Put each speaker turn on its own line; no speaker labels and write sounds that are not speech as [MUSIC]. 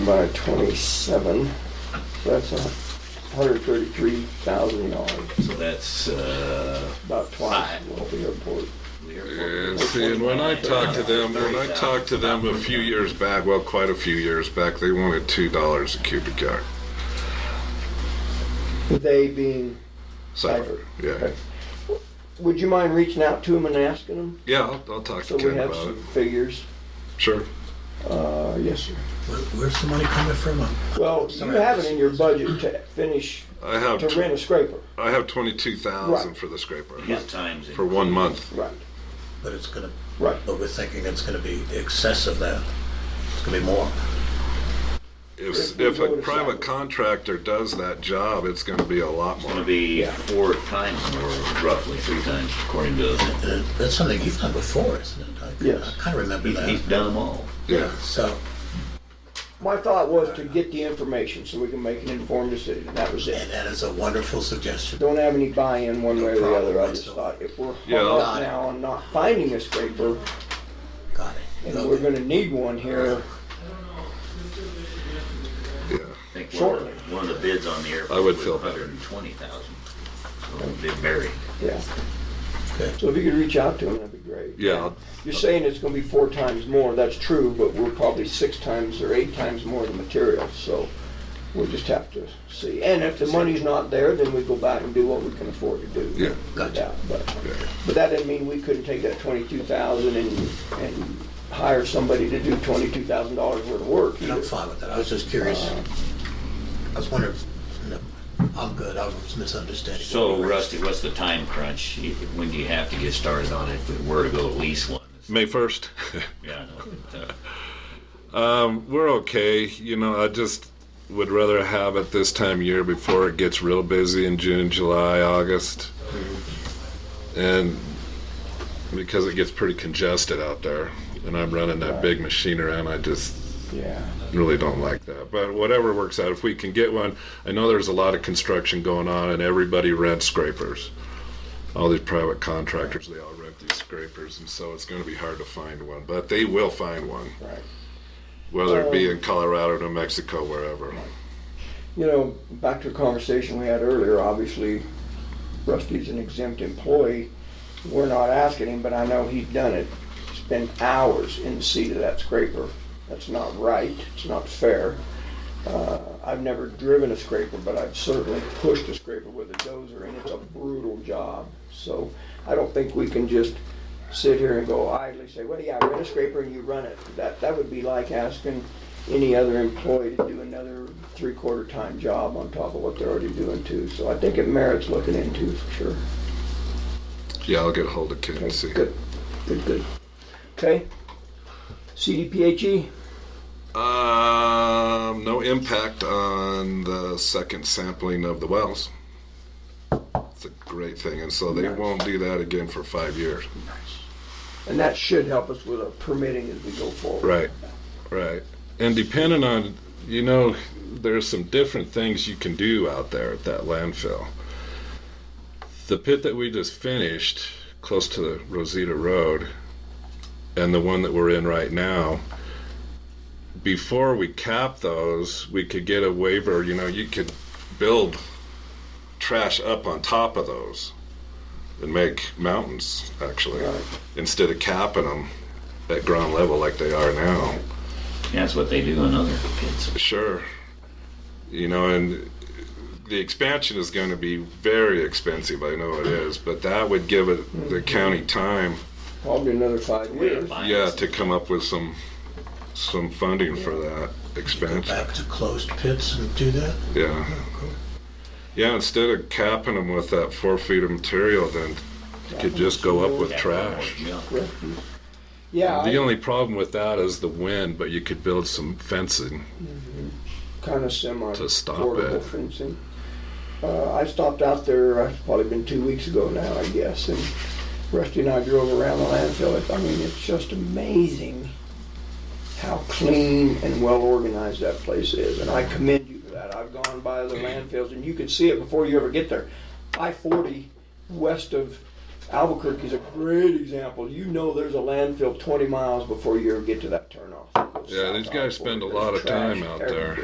by 27, so that's $133,000,
So that's uh,
about twice what the airport.
the airport.
Yeah, see, and when I talked to them, when I talked to them a few years back, well, quite a few years back, they wanted two dollars a cubic yard.
They being,
Cypher, yeah,
Okay. would you mind reaching out to them and asking them?
yeah. I'll, I'll talk
So we
to Ken
have
about it.
some figures.
Sure.
Uh, yes, sir.
Where, where's the money coming from?
Well, you have it in your budget to finish,
I have
to
tw-
rent a scraper.
I have twenty two thousand
Right.
for the scraper
His times it.
for one month.
Right,
But it's gonna,
right.
but we're thinking it's gonna be excess of that. It's gonna be more.
If
If
we
if
go to
a
Cypher.
private contractor does that job, it's going to be a lot
It's going
more.
to be four times more, roughly three times, according to us.
Uh, That's something you've done before, isn't it? I-
Yes.
I kinda remember
He's, he's
that.
done them all.
Yeah.
So,
My thought was to get the information so we can make an informed decision. That was
and
it.
that is a wonderful suggestion.
Don't have any buy-in one way or the other. I just
No
thought
problem.
if we're
Yeah.
hung up now on not finding a scraper,
Got it.
and we're
Okay.
gonna need one here,
Yeah.
I think one of, the-
Shortly.
one of the bids on the airport
I would
was
feel better.
120,000. So they buried.
yeah.
Okay.
So if you could reach out to them, that'd be great.
Yeah. I'll-
You're saying it's gonna be four times more, that's true, but we're probably six times or eight times more the material, so we'll just have to see. And if the money's not there, then we go back and do what we can afford to do.
Yeah.
Gotcha.
But,
yeah.
but that didn't mean we couldn't take that twenty-two thousand and, and hire somebody to do twenty-two thousand dollars worth of work.
And I'm fine with that. I was just curious. I was wondering, no, I'm good. I was misunderstanding.
So Rusty, what's the time crunch? When do you have to get started on it if we were to go lease one?
May first. [LAUGHS]
Yeah, I know. uh,
We're okay. You know, I just would rather have it this time of year before it gets real busy in June, July, August. And because it gets pretty congested out there and I'm running that big machine around, I just
Yeah.
really don't like that. But whatever works out, if we can get one, I know there's a lot of construction going on and everybody rents scrapers. All these private contractors, they all rent these scrapers and so it's gonna be hard to find one, but they will find one
Right.
whether it be in Colorado, New Mexico, wherever.
You know, back to a conversation we had earlier, obviously Rusty's an exempt employee. We're not asking him, but I know he's done it. Spend hours in the seat of that scraper. That's not right. It's not fair. Uh, I've never driven a scraper, but I've certainly pushed a scraper with a dozer and it's a brutal job. So I don't think we can just sit here and go idly say, well, yeah, I rent a scraper and you run it. That, that would be like asking any other employee to do another three-quarter time job on top of what they're already doing too. So I think it merits looking into for sure.
Yeah, I'll get a hold of Ken and see.
Okay, Good, good, good. Okay. CDPHE,
Um, no impact on the second sampling of the wells. It's a great thing, and so they
Nice.
won't do that again for five years.
and that should help us with our permitting as we go forward.
Right, right. And depending on, you know, there's some different things you can do out there at that landfill. The pit that we just finished, close to the Rosita Road, and the one that we're in right now, before we cap those, we could get a waiver, you know, you could build trash up on top of those and make mountains, actually,
Right.
instead of capping them at ground level like they are now.
That's what they do in other pits.
Sure. You know, and the expansion is going to be very expensive. I know it is, but that would give it
Mm-hmm.
the county time,
Probably another five years.
yeah, to come up with some some funding for that
Go
expansion.
back to closed pits and do that?
Yeah. Yeah, instead of capping them with that four feet of material, then you could just go up with trash.
Yeah.
Yeah,
The
I
only problem with that is the wind, but you could build some fencing.
kind of semi
To stop
portable
it.
fencing. Uh, I stopped out there, uh, probably been two weeks ago now, I guess, and Rusty and I drove around the landfill. It- I mean, it's just amazing how clean and well organized that place is, and I commend you for that. I've gone by the landfills, and you can see it before you ever get there. I-40 west of Albuquerque's a great example. You know there's a landfill 20 miles before you ever get to that turnoff.
Yeah, these guys spend a lot of
There's trash
time out
everywhere.
there.